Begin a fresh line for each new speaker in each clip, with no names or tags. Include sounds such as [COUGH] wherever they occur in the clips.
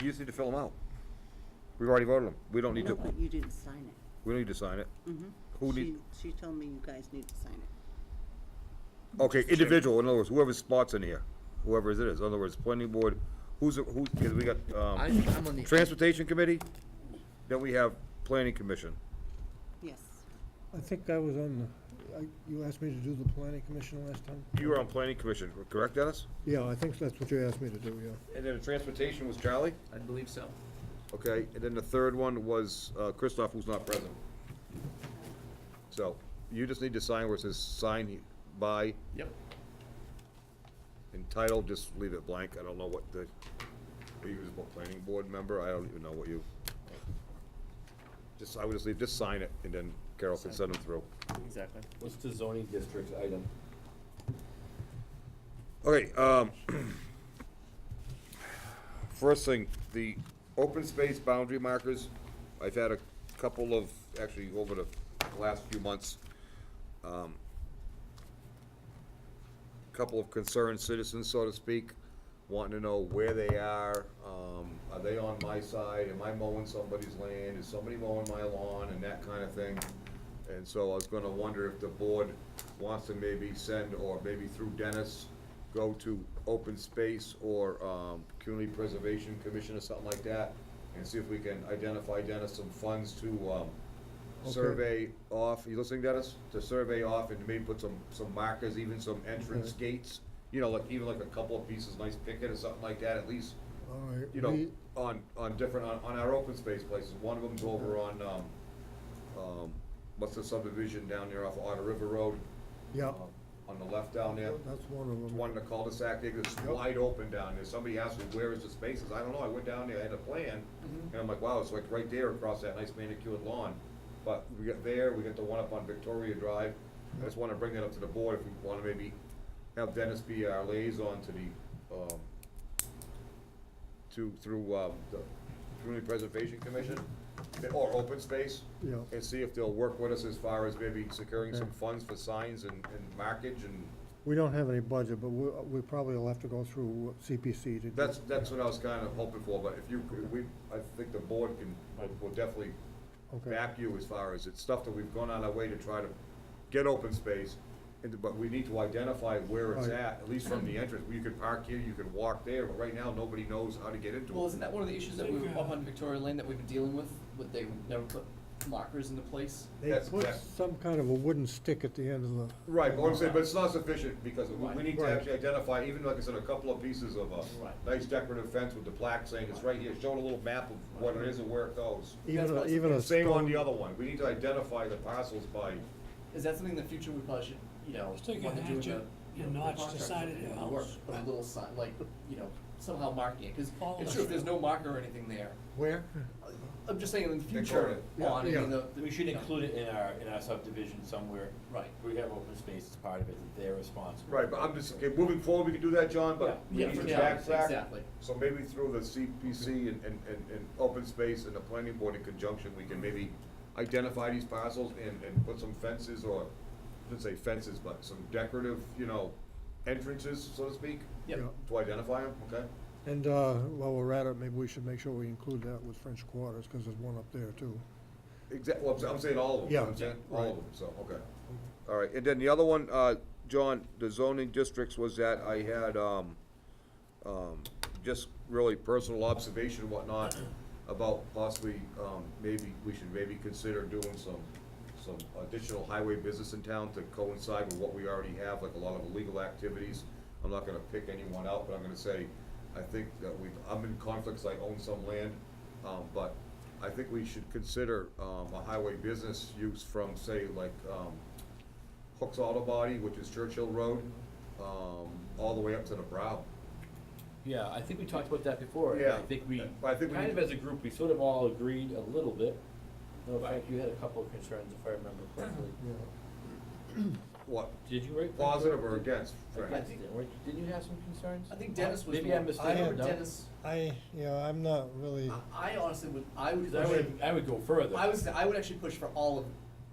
You just need to fill them out. We've already voted them. We don't need
No,
to,
but you didn't sign it.
we don't need to sign it. Who
She,
need,
she told me you guys need to sign it.
okay, individual, in other words, whoever's spots in here, whoever it is, in other words, planning board, who's, who, because we got,
I,
um,
I'm on the.
transportation committee, then we have planning commission.
Yes.
I think I was on the, I, you asked me to do the planning commission last time?
You were on planning commission, correct, Dennis?
Yeah, I think that's what you asked me to do, yeah.
And then the transportation was Charlie?
I believe so.
Okay, and then the third one was uh, Christoph, who's not present. So, you just need to sign where it says sign by
Yep.
and title, just leave it blank, I don't know what the, are you a planning board member, I don't even know what you. Just, I would just leave, just sign it, and then Carol can send them through.
Exactly.
What's the zoning district item?
Okay, um, [CLEARS THROAT] first thing, the open space boundary markers, I've had a couple of, actually, over the last few months, um, couple of concerned citizens, so to speak, wanting to know where they are, um, are they on my side, am I mowing somebody's land, is somebody mowing my lawn, and that kind of thing. And so I was gonna wonder if the board wants to maybe send, or maybe through Dennis, go to Open Space or, um, Community Preservation Commission or something like that, and see if we can identify Dennis some funds to, um,
Okay.
survey off, you listening, Dennis? To survey off and maybe put some, some markers, even some entrance gates, you know, like, even like a couple of pieces, nice picket or something like that, at least,
All right.
you know,
we-
on, on different, on, on our open space places, one of them's over on, um, um, what's the subdivision down there off Otter River Road?
Yeah,
um, On the left down there,
that's one of them.
one in the cul-de-sac, they just
Yep.
wide open down there, somebody asked me, where is the spaces, I don't know, I went down there, I had a plan,
Mm-hmm.
and I'm like, wow, it's like right there across that nice manicured lawn, but we got there, we got the one up on Victoria Drive, I just wanna bring that up to the board, if we wanna maybe have Dennis be our liaison to the, um, to, through, um, the Community Preservation Commission, or open space,
Yeah.
and see if they'll work with us as far as maybe securing some
Okay.
funds for signs and, and markage and
We don't have any budget, but we, we probably will have to go through CPC to. do-
That's, that's what I was kind of hoping for, but if you, we, I think the board can, will definitely
Okay.
back you as far as, it's stuff that we've gone on our way to try to get open space, and, but we need to identify where it's
Right.
at, at least from the entrance, you could park here, you could walk there, but right now, nobody knows how to get into it.
Well, isn't that one of the issues that we were up on Victoria Lane that we've been dealing with? Would they never put markers into place?
They
That's
put
exact-
some kind of a wooden stick at the end of the.
Right, but I'm saying, but it's not sufficient, because we, we need to
Right.
actually identify, even like I said, a couple of pieces of a nice decorative fence with the plaque saying it's right here, showing a little map of what it is and where it goes.
That's
Even, a-
what I
even a
Same on the
stone-
other one, we need to identify the parcels by,
Is that something in the future we probably should, you know,
Just take a
when they're doing the,
hatchet
you know,
and
the
notch the
contractor
side of
and
the
the work,
house.
Put a little sign, like, you know, somehow marking it, cause
Follow
it's
the
true, if there's no
trail.
marker or anything there.
Where?
I'm just saying in the
They
future,
call
it.
on, I
Uh, Yeah,
mean,
yeah.
the.
We should
you know,
include it in our, in our subdivision somewhere.
Right.
We have open space as part of it, that they're responsible.
Right, but I'm just, okay, moving forward, we can do that, John, but we
Yeah,
need
for
to
now,
backtrack.
exactly.
So maybe through the CPC and, and, and, and open space and the planning board in conjunction, we can maybe identify these parcels and, and put some fences or, I shouldn't say fences, but some decorative, you know, entrances, so to speak,
Yep.
Yeah.
to identify them, okay?
And, uh, while we're at it, maybe we should make sure we include that with French Quarters, cause there's one up there too.
Exactly, well, I'm sa- I'm saying all of them, you know what I'm
Yeah,
saying, all
right.
of them, so, okay. All right, and then the other one, uh, John, the zoning districts was that I had, um, um, just really personal observation and whatnot about possibly, um, maybe, we should maybe consider doing some, some additional highway business in town to coincide with what we already have, like a lot of illegal activities. I'm not gonna pick anyone out, but I'm gonna say, I think that we've, I'm in conflicts, I own some land, um, but I think we should consider, um, a highway business use from, say, like, um, Hooks Auto Body, which is Churchill Road, um, all the way up to the brow.
Yeah, I think we talked about that before. and
Yeah.
I think we,
I think we
kind
need-
of as a group, we sort of all agreed a little bit. No, Frank, you had a couple of concerns, if I remember correctly.
What,
Did you write?
positive or against, Frank?
I
Against
think-
it, weren't you- didn't you have some concerns?
I think Dennis was
Maybe I
more-
mistaken.
I remember
no?
Dennis,
I, yeah, I'm not really.
I I honestly would, I would.
'Cause I would, I would go further.
I was I would actually push for all of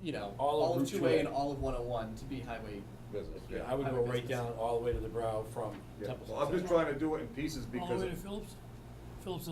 you know
All of
all of
Route
two A
2A.
and all of one oh one to be highway.
Business,
Yeah,
yeah.
I would
I
go
would
right
business.
down all the way to the brow from
Yeah.
Templeton.
Well, I'm just trying to do it in pieces
All the
because
way to Phillips? Phillips